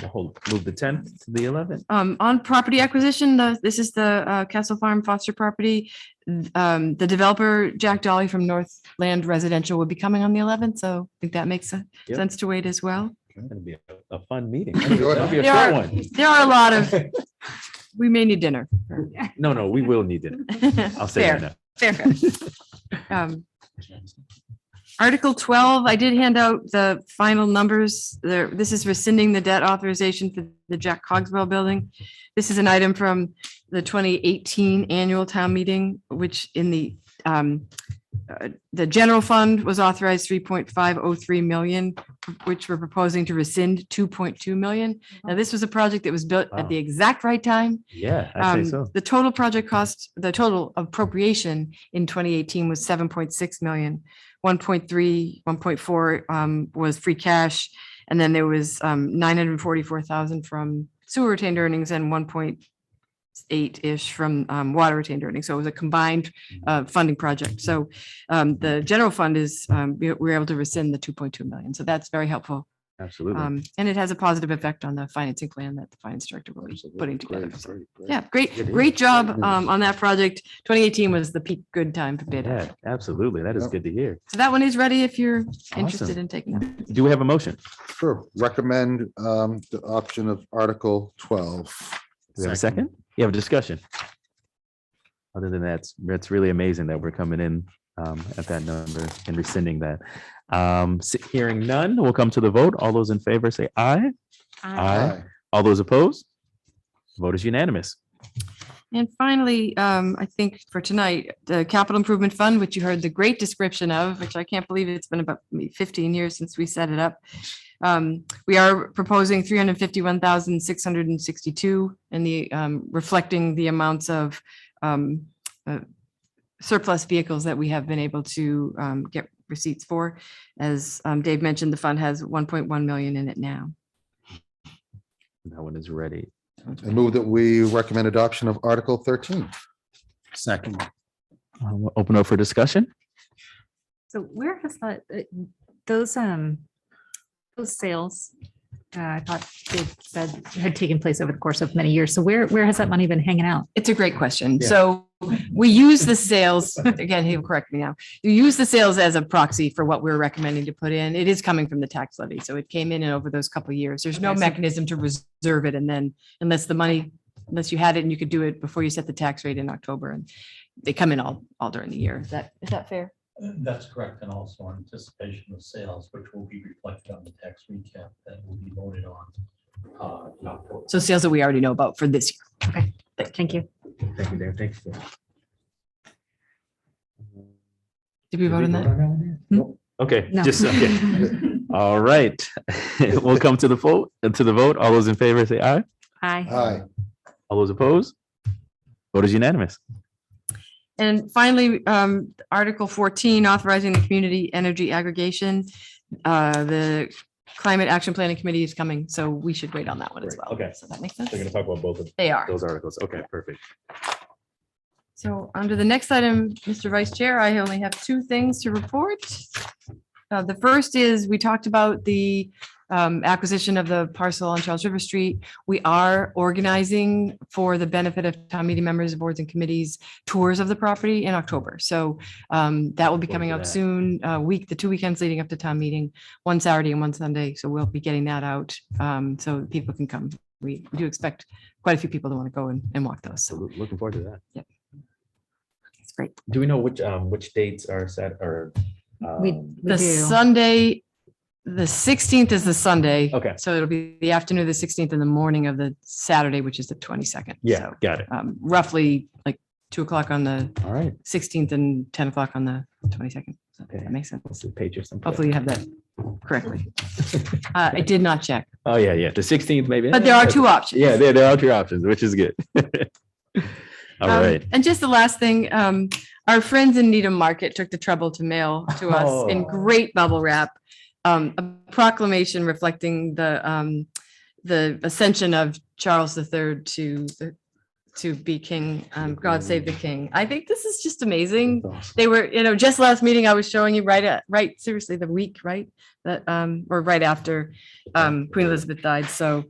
We'll hold- Move the tenth to the eleventh. Um, on property acquisition, the, this is the uh, Castle Farm Foster property. Um, the developer, Jack Dolly from Northland Residential will be coming on the eleventh, so I think that makes sen- Yep. sense to wait as well. It'll be a- a fun meeting. That'll be a There short are- one. There are a lot of, we may need dinner. No, no, we will need it. I'll say Fair. that. now. Fair. fair. Um, Article twelve, I did hand out the final numbers. There, this is rescinding the debt authorization for the Jack Cogswell Building. This is an item from the twenty eighteen annual town meeting, which in the um, uh, the general fund was authorized three point five oh three million, which we're proposing to rescind two point two million. Now, this was a project that was built at the exact right time. Yeah, I'd say Um, so. The total project cost, the total appropriation in twenty eighteen was seven point six million. One point three, one point four um was free cash. And then there was um nine hundred and forty-four thousand from sewer retained earnings and one point eight-ish from um water retained earnings. So it was a combined uh funding project. So um the general fund is, um we we were able to rescind the two point two million. So that's very helpful. Absolutely. Um, and it has a positive effect on the financing plan that the finance director will be putting together. So, Yeah, great, great job, um, on that project. Twenty eighteen was the peak good time for bid. Yeah, absolutely. That is good to hear. So that one is ready if you're interested in taking that. Do we have a motion? Sure, recommend um the option of Article twelve. Do we have a second? You have a discussion? Other than that, it's- it's really amazing that we're coming in um, at that number and rescinding that. Um, s- Hearing none, we'll come to the vote. All those in favor say aye. Aye. All those opposed? Vote is unanimous. And finally, um, I think for tonight, the capital improvement fund, which you heard the great description of, which I can't believe it's been about fifteen years since we set it up. Um, we are proposing three hundred fifty-one thousand, six hundred and sixty-two and the, um, reflecting the amounts of, um, uh, surplus vehicles that we have been able to, um, get receipts for. As, um, Dave mentioned, the fund has one point one million in it now. That one is ready. I move that we recommend adoption of Article thirteen. Second. Uh, we'll Open up for discussion. So where has that, uh, those, um, those sales, uh, I thought they said had taken place over the course of many years. So where, where has that money been hanging out? It's a great question. Yeah. So we use the sales, again, he'll correct me now. You use the sales as a proxy for what we're recommending to put in. It is coming from the tax levy. So it came in and over those couple of years. There's no Okay, so- mechanism to reserve it. And then unless the money, unless you had it and you could do it before you set the tax rate in October and they come in all, all during the year. Is that, is that fair? That's correct, and also anticipation of sales, which will be reflected on the tax recap that will be voted on. uh, in October. So sales that we already know about for this year. Thank you. Thank you, Dan. Thank you. Did we vote on that? Okay, No. just, okay. All right. We'll come to the vote, to the vote. All those in favor say aye. Hi. Aye. All those opposed? Vote is unanimous. And finally, um, Article fourteen, authorizing the community energy aggregation. Uh, the Climate Action Planning Committee is coming, so we should wait on that one as Right, well. okay. So that makes sense. They're gonna talk about both of They are. those articles. Okay, perfect. So under the next item, Mr. Vice Chair, I only have two things to report. Uh, The first is, we talked about the um, acquisition of the parcel on Charles River Street. We are organizing for the benefit of town meeting members, boards and committees, tours of the property in October. So um, that will be Look coming for out that. soon, uh, week, the two weekends leading up to town meeting, one Saturday and one Sunday. So we'll be getting that out um, so people can come. We do expect quite a few people to want to go and and walk those. So So loo- looking forward to that. it's great. Do we know which, um, which dates are set or? We, um, we The do. Sunday, the sixteenth is the Sunday. Okay. So it'll be the afternoon of the sixteenth and the morning of the Saturday, which is the twenty-second. Yeah, got it. Um, roughly like two o'clock on the All right. sixteenth and ten o'clock on the twenty-second. Okay. That makes sense. Let's see, page or something. Hopefully you have that correctly. Uh, I did not check, Oh, yeah, yeah. The sixteenth maybe. but there are two options. Yeah, there, there are two options, which is good. All Um, right. And just the last thing, um, our friends in Needham Market took the trouble to mail to us in Oh. great bubble wrap. Um, a proclamation reflecting the, um, the ascension of Charles III to, the- to be king. Um, God save the king. I think this is just amazing. They were, you know, just last meeting I was showing you right at, right, seriously, the week, right? That, um, or right after, um, Queen Elizabeth died. So